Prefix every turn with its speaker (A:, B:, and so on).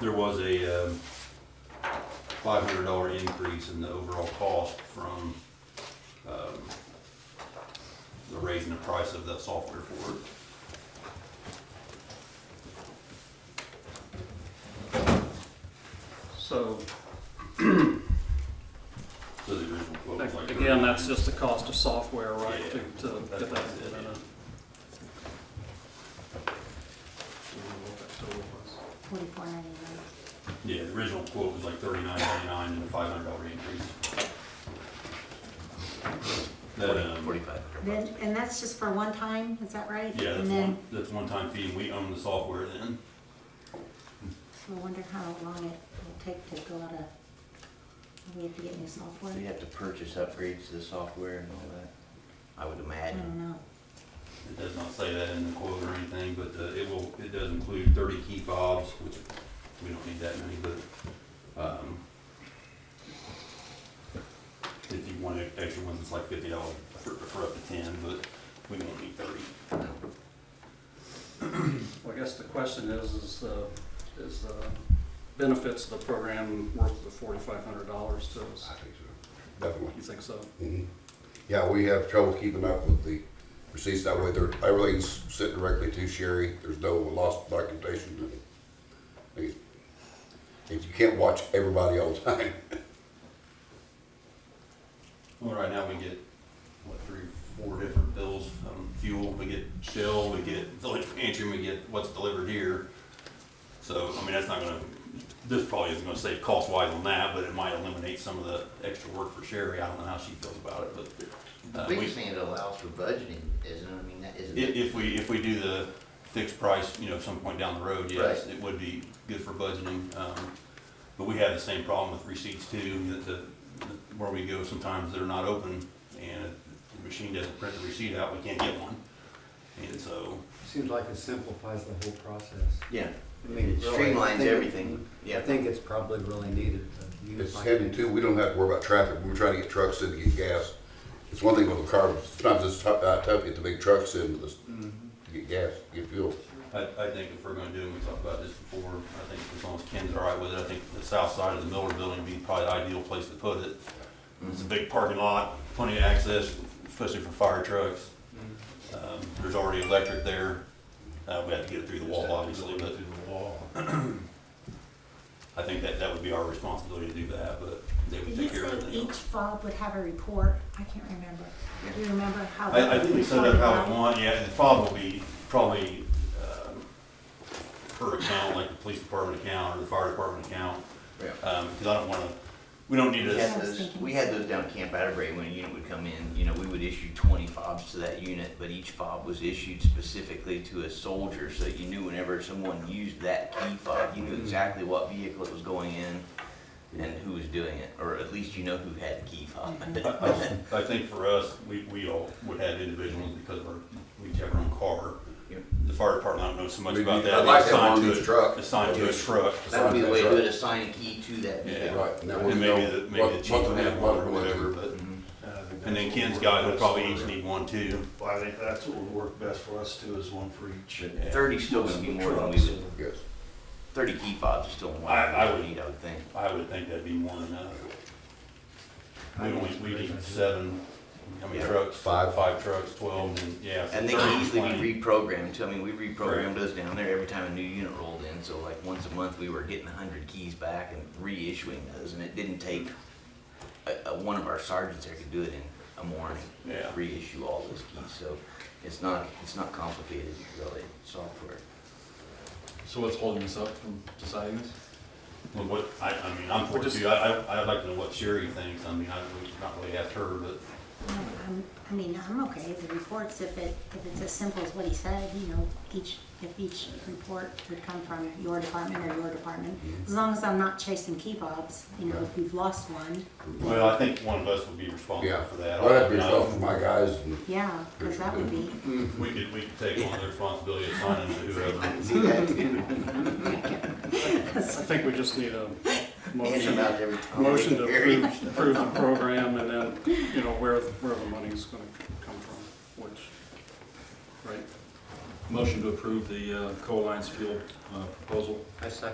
A: there was a um, five hundred dollar increase in the overall cost from um, the raising the price of the software for it.
B: So,
A: So the original quote was like.
B: again, that's just the cost of software, right, to,
A: Yeah.
B: to get that.
A: That's it, yeah.
C: Forty-four ninety-nine.
A: Yeah, the original quote was like thirty-nine ninety-nine and a five hundred dollar increase. That, um,
D: Forty-five hundred
C: Then, and that's just for one time, is that right?
A: yeah, that's
C: And then,
A: one, that's one time fee, and we own the software then.
C: so I wonder how long it will take to go out of, we have to get new software?
E: Do you have to purchase upgrades to the software and all that? I would
C: I
E: imagine.
C: don't know.
A: It does not say that in the quote or anything, but uh, it will, it does include thirty key fobs, which we don't need that many, but, um, if you want e-, extra ones, it's like fifty dollars for, for up to ten, but we won't need thirty.
B: Well, I guess the question is, is, uh, is the benefits of the program worth the forty-five hundred dollars to us?
F: I think so, definitely.
B: You think so?
F: Mhm. Yeah, we have trouble keeping up with the receipts that way. They're, everything's sent directly to Sherry. There's no lost documentation. And and you can't watch everybody all the time.
A: Well, right now we get, what, three, four different bills from fuel, we get Shell, we get Village Pantry, and we get what's delivered here. So, I mean, that's not gonna, this probably isn't gonna save cost wise on that, but it might eliminate some of the extra work for Sherry, I don't know how she feels about it, but.
E: The
A: uh, we-
E: biggest thing it allows for budgeting, isn't it? I mean, that isn't
A: If,
E: it?
A: if we, if we do the fixed price, you know, some point down the road, yes,
E: Right.
A: it would be good for budgeting. Um, But we have the same problem with receipts too, that the, where we go, sometimes they're not open and if the machine doesn't print the receipt out, we can't get one. And so,
G: Seems like it simplifies the whole process.
E: Yeah,
G: I mean,
E: it
G: really, I
E: streamlines
G: think-
E: everything,
G: I
E: yeah.
G: think it's probably really needed. to unify
F: It's heading to, we don't have to worry about traffic. We're trying to get trucks in to get gas. It's one thing with a car, but sometimes it's tough, uh, tough to get the big trucks in to get gas, get fuel.
A: I, I think if we're gonna do, and we talked about this before, I think as long as Ken's all right with it, I think the south side of the Miller Building would be probably the ideal place to put it. It's a big parking lot, plenty of access, especially for fire trucks. Um, There's already electric there. Uh, We have to get it through the wall, obviously, but I think that, that would be our responsibility to do that, but they would
C: Did you
A: take care of
C: say
A: everything
C: each
A: else.
C: fob would have a report? I can't remember. Do you remember how?
A: I, I think we set up how we
C: reported
A: want, yeah, the fob will be probably um, per account, like the police department account or the fire department account.
E: Yeah.
A: Because I don't want to, we don't need
E: We
A: to,
E: had those, we had those down at Camp Atterbury when a unit would come in, you know, we would issue twenty fobs to that unit, but each fob was issued specifically to a soldier, so that you knew whenever someone used that key fob, you knew exactly what vehicle it was going in and who was doing it, or at least you know who had the key fob.
A: I- I just- I think for us, we, we all would have individuals because of our, we each have our own car.
E: Yep.
A: The fire department, I don't know so much
F: Maybe-
A: about that.
F: I'd like
A: It's
F: that
A: assigned
F: on
A: to
F: each
A: a-
F: truck.
A: Assigned to a truck.
E: That would be the way to assign a key to that
A: Yeah.
E: vehicle.
F: Right, and that way
A: And
F: we
A: maybe,
F: know
A: the-
F: what-
A: maybe the chief
F: what
A: would
F: we-
A: have
F: what
A: one or
F: we're gonna
A: whatever,
F: do.
A: but,
E: Mhm.
A: and then Ken's guy would probably each need one too.
H: Well, I think that's what would work best for us too, is one for each.
A: Yeah.
E: Thirty's still gonna be more than we would,
F: Yes.
E: thirty key fobs is still more
A: I- I
E: than we
A: would-
E: would need, I would think.
A: I would think that'd be more than enough. We only, we need seven, how many
E: Yeah.
A: trucks?
F: Five.
A: Five trucks, twelve, and yeah. so
E: And they
A: 30,
E: can easily
A: 20.
E: be reprogrammed too. I mean, we reprogrammed
A: Correct.
E: those down there every time a new unit rolled in. So like once a month, we were getting hundred keys back and reissuing those. And it didn't take, a, a, one of our sergeants there could do it in a morning.
A: Yeah.
E: Reissue all those keys. So it's not, it's not complicated really, software.
D: So what's holding us up from deciding this?
A: Well, what, I, I mean, I'm for
D: We're
A: it
D: just-
A: too, I, I, I'd like to know what Sherry thinks, I mean, I, we've not really asked her, but,
C: No, I'm- I mean, I'm okay with the reports if it, if it's as simple as what he said, you know, each, if each report would come from your department or your department. As long as I'm not chasing key fobs, you know, if we've lost one,
A: well, I think one of us would be responsible
F: Yeah,
A: for that.
F: I'd have to
A: I-
F: yourself for my guys and
C: yeah, because that would be,
A: We could, we could take on the responsibility of signing to whoever.
B: I think we just need a
E: Hands
B: motion,
E: them out every time.
B: motion to
E: Very-
B: approve, approve the program and then, you know, where, where the money's gonna come from, which, right?
D: Motion to approve the uh, Coalliance Fuel uh, proposal.
G: I second